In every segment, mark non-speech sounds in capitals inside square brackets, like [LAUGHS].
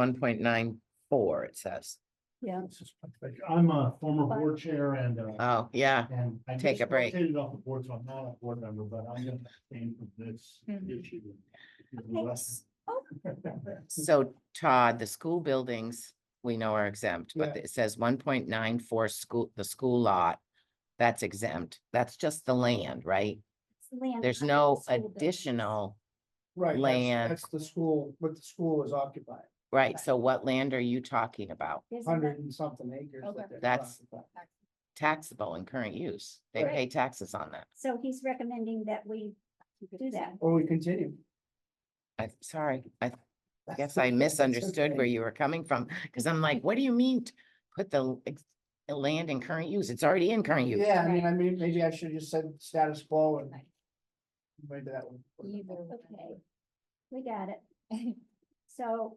one point nine four, it says. Yeah. This is like, I'm a former board chair and, uh, Oh, yeah, and. I Take just a break. rotated off the board, so I'm not a board member, but I'm gonna abstain from this Mhm. issue. Thanks. so Todd, the school buildings, we know are exempt, but Yeah. it says one point nine four school, the school lot. That's exempt. That's just the land, right? Land There's under the no school building. additional, [LAUGHS] Right, that's, Land. that's the school, what the school is occupying, right? So what land are you talking about? Isn't that- hundred and something acres. that Okay. they're That's- occupying. Taxable and current use. They Right. pay taxes on that. So he's recommending that we do that. Or we continue. I'm sorry, I guess I misunderstood where you were coming from, because I'm like, what do you mean? t- Put the l- ex- the land in current use? It's already in current use. Yeah, I mean, I mean, maybe I should have just said status quo and. Right. Maybe that one. Okay, we got it. So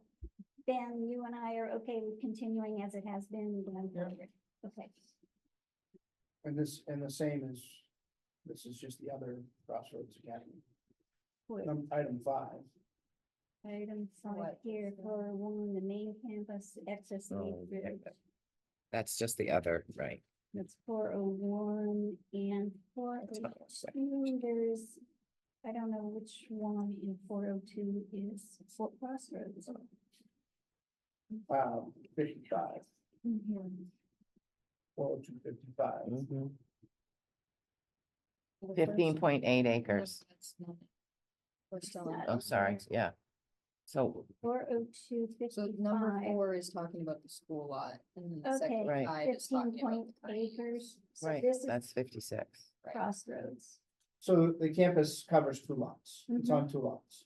Ben, you and I are okay with continuing as it has been going Yeah. forward. Okay, And this, and the same as, this is just the other Crossroads Academy. Wait. Num- Item five, item five what? here for one, the main campus E access. Oh, yeah, gate that- That's just the other, right? That's four oh one and four oh two, there's, I don't know which one in four oh two is Fort Crossroads. um, fifty-five, Mhm. four oh two Mm-hmm. fifty-five. Mm-hmm. Fifteen point eight acres. We're still on. not- I'm sorry, Mm-hmm. yeah. So, Four oh two So number fifty-five. four is talking about the school lot and then Okay, section Right. five is fifteen talking about. point the tiny acres. So right, this is that's fifty-six. right. Crossroads. So the campus covers two lots, it's Mm-hmm. on two lots.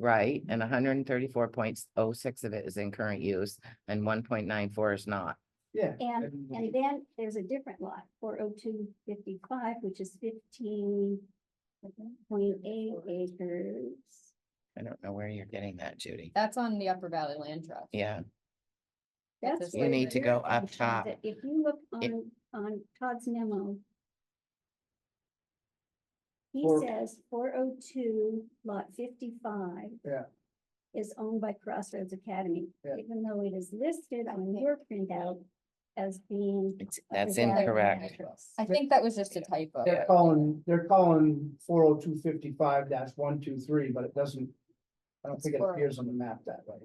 Right, and hundred and thirty-four point oh six of it is in current use and one point nine four is not. Yeah. And, Mm-hmm. and- and then there's a different lot, four oh two fifty-five, which is fifteen point eight acres. I don't know where you're getting that, Judy. That's on the Upper Valley Land Trust. Yeah, That's. You where need to you're go up thinking top. that If you look It- on, on Todd's memo. He Four- says four oh two lot fifty-five. Yeah. Is owned by Crossroads Academy, Yeah. even though it is listed on Okay. your printout as being. it's, Upper that's Valley incorrect. Acres. I think that was just a typo. They're calling, they're calling four oh two fifty-five dash one two three, but it doesn't. I don't think it Squirrel. appears on the map that way.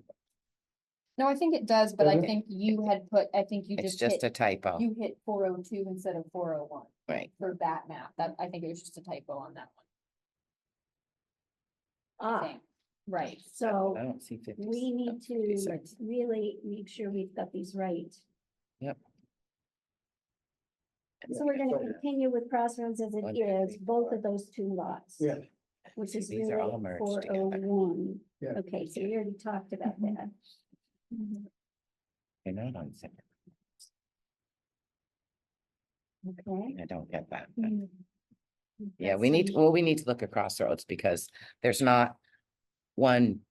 No, I think it does, but I Does it? think you had put, I think you It's just just hit, a typo, you hit four oh two instead of four oh one right? for that map. That, I think it was just a typo on that one. I Ah, think. Right. so I don't see fifty. we need to 56. really make sure we've got these right. Yep. So we're gonna So- continue with Crossroads as it One, two, is, three, both four. of those two lots. Yeah. Which is These really are all four merged oh together. Mm-hmm. one. Yeah. Okay, so we already talked about Mhm. that. Mm-hmm. They're not on second. Okay. I don't get that. but- Mhm. Yeah, we need, well, we need to look at crossroads because there's not one.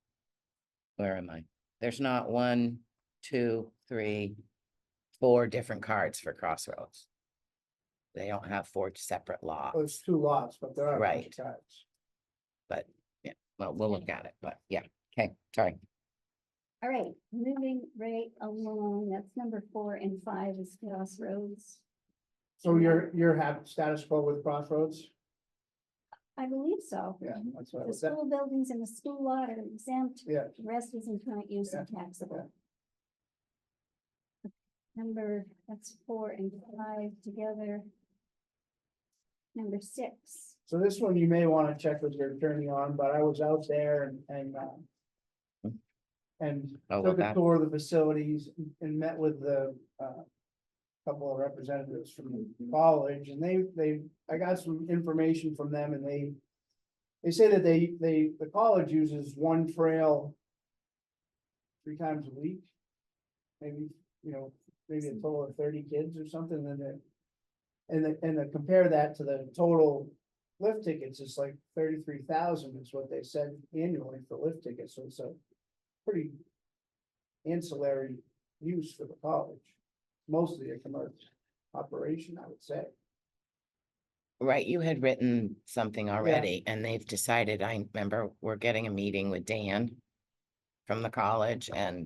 Where am I? There's not one, two, three, four different cards for crossroads. They don't have four separate lots, Well, Oh, It's two lots, but there are. a bunch of tribes. Well, we'll look at it, but yeah, okay, sorry. All right, moving right along, that's number four and five is Crossroads. So you're, you're have status quo with Crossroads? I believe so. Yeah, that's what I The was at. school buildings and the school lot are exempt. Yeah, The Rest is in current use and taxable. Number, that's four and five together. Number six, so this one you may want to check with your attorney on, but I was out there and, and, um, and Oh, well, took a that, tour of the facilities and met with the, uh, couple of representatives from the college, and they, they, I got some information from them, and they, they say that they, they, the college uses one trail three times a week, maybe, you know, maybe a total of thirty kids or something, and then, and then, and then compare that to the total lift tickets, it's like thirty-three thousand is what they said annually for lift tickets, so it's a pretty ancillary use for the college. Mostly a commercial operation, I would say. right, you had written something already and they've decided, I remember, we're getting a meeting with Dan. from the college and